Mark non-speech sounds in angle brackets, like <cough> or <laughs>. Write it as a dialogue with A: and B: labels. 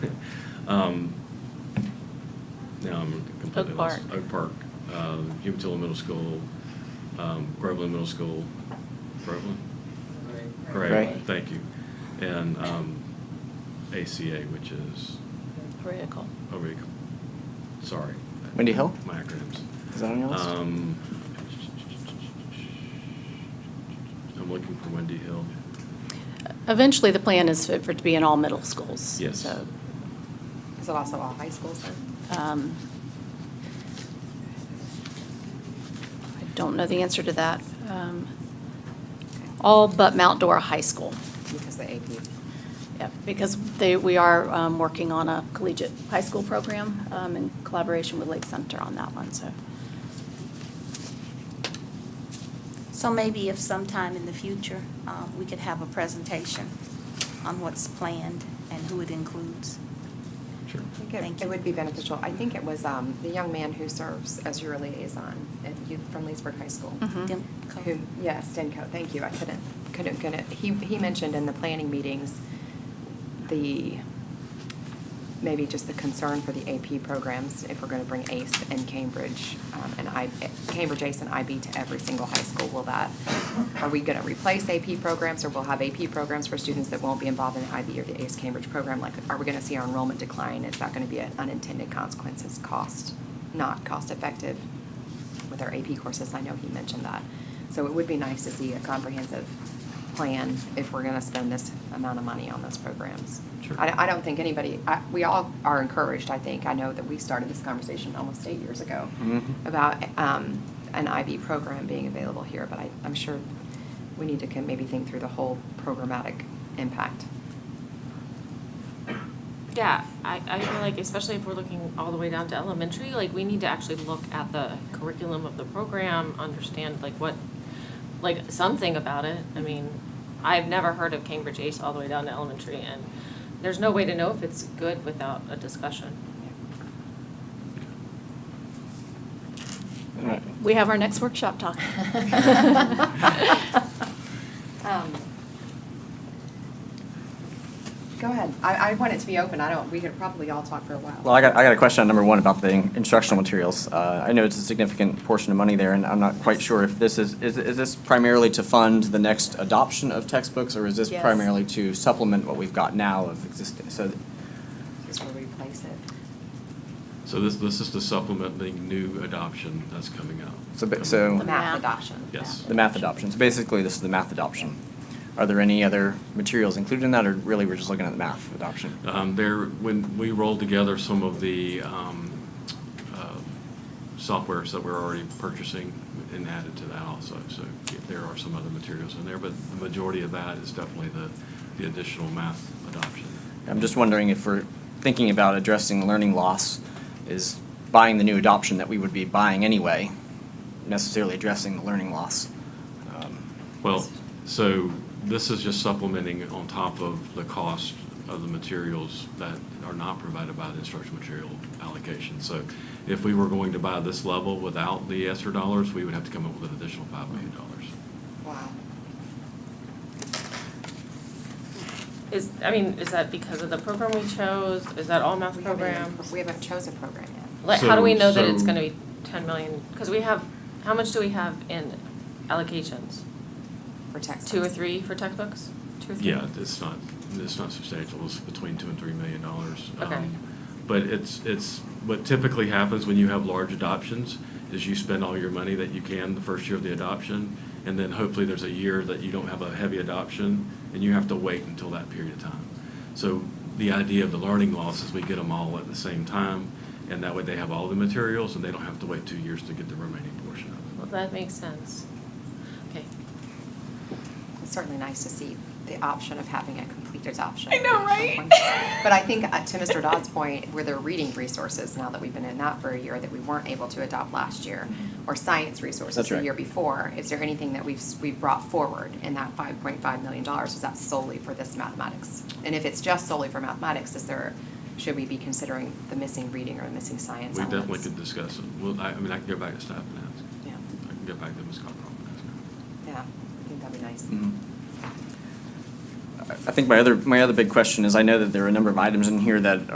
A: Um, Now I'm completely
B: Oak
A: lost.
B: Park.
A: Oak Park, uh, Umatilla Middle School, um, Groveland Middle School, Groveland? Great,
C: Right.
A: thank you. And um, ACA, which is,
B: Critical.
A: oh, wait, sorry.
C: Windy Hill?
A: My acronyms.
C: Is that on your list?
A: Um, I'm looking for Wendy Hill.
B: Eventually, the plan is for for it to be in all middle schools.
A: Yes.
B: So,
D: Is it also all high schools then?
E: Uh,
B: um, I don't know the answer to that. Um, All but Mount Dora High School.
D: Because the AP.
B: Yeah, because they, we are um, working on a collegiate high school program um, in collaboration with Lake Center on that one, so.
E: So maybe if sometime in the future, uh, we could have a presentation on what's planned and who it includes.
A: Sure.
D: I think it-
E: Thank
D: It
E: you.
D: would be beneficial. I think it was um, the young man who serves as your liaison at youth from Leesburg High School.
B: Mhm.
E: Dem-
D: Who, yeah, Stenco, thank you. I couldn't, couldn't, couldn't. He, he mentioned in the planning meetings, the, maybe just the concern for the AP programs, if we're going to bring ACE and Cambridge, um, and I, Cambridge ACE and IB to every single high school, will that, are we going to replace AP programs, or we'll have AP programs for students that won't be involved in the IB or the ACE Cambridge program? Like, are we going to see our enrollment decline? Is that going to be an unintended consequence? Is cost not cost-effective with our AP courses? I know he mentioned that. So it would be nice to see a comprehensive plan if we're going to spend this amount of money on those programs.
A: Sure.
D: I, I don't think anybody, I, we all are encouraged, I think. I know that we started this conversation almost eight years ago
C: Mhm.
D: about um, an IB program being available here, but I, I'm sure we need to can maybe think through the whole programmatic impact.
F: Yeah, I, I feel like especially if we're looking all the way down to elementary, like we need to actually look at the curriculum of the program, understand like what, like something about it. I mean, I've never heard of Cambridge ACE all the way down to elementary and there's no way to know if it's good without a discussion.
C: All right.
B: We have our next workshop
F: <laughs>
D: <laughs>
B: talk. <laughs>
D: Um, Go ahead. I, I want it to be open. I don't, we could probably all talk for a while.
C: Well, I got, I got a question on number one about the instructional materials. Uh, I know it's a significant portion of money there, and I'm not quite sure if this is, is, is this primarily to fund the next adoption of textbooks, or is this
B: Yes.
C: primarily to supplement what we've got now of existing, so,
D: Is where we place it.
A: So this, this is to supplement the new adoption that's coming out.
C: So ba- so-
D: The math adoption.
A: Yes.
C: the math adoption. So basically, this is the math adoption. Are there any other materials included in that, or really we're just looking at the math adoption?
A: Um, There, when we rolled together some of the um, uh, softwares that we're already purchasing and added to that also, so there are some other materials in there, but the majority of that is definitely the, the additional math adoption.
C: I'm just wondering if we're thinking about addressing learning loss, is buying the new adoption that we would be buying anyway necessarily addressing the learning loss? Um,
A: Well, so this is just supplementing on top of the cost of the materials that are not provided by the instructional material allocation. So if we were going to buy this level without the ESSER dollars, we would have to come up with an additional $5 million.
D: Wow.
F: Is, I mean, is that because of the program we chose? Is that all math
D: We haven't even-
F: programs?
D: We haven't chosen a program yet.
F: Like, how do we
A: So-
F: know that it's
A: so-
F: gonna be ten million? Cause we have, how much do we have in allocations?
D: For textbooks.
F: Two or three for textbooks? Two or three?
A: Yeah, it's not, it's not substantial, it's between two and three million dollars.
F: Okay.
A: Um, But it's, it's, what typically happens when you have large adoptions is you spend all your money that you can the first year of the adoption, and then hopefully there's a year that you don't have a heavy adoption, and you have to wait until that period of time. So the idea of the learning loss is we get them all at the same time, and that way they have all the materials, and they don't have to wait two years to get the remaining portion of it.
F: Well, that makes sense. Okay.
D: It's certainly nice to see the option of having a complete adoption.
F: I know, right? <laughs>
D: But I think, uh, to Mr. Dodd's point, where there are reading resources, now that we've been in that for a year, that we weren't able to adopt last year,
F: Mm-hmm.
D: or science resources
C: That's
D: the
C: right.
D: year before, is there anything that we've, s- we've brought forward in that five point five million dollars? Is that solely for this mathematics? And if it's just solely for mathematics, is there, should we be considering the missing reading or the missing science
A: We definitely
D: elements?
A: could discuss it. Well, I, I mean, I can go back to staff and ask.
D: Yeah,
A: I can go back to Ms. Cockrum and ask her.
D: yeah, I think that'd be nice.
C: mhm. I I think my other, my other big question is, I know that there are a number of items in here that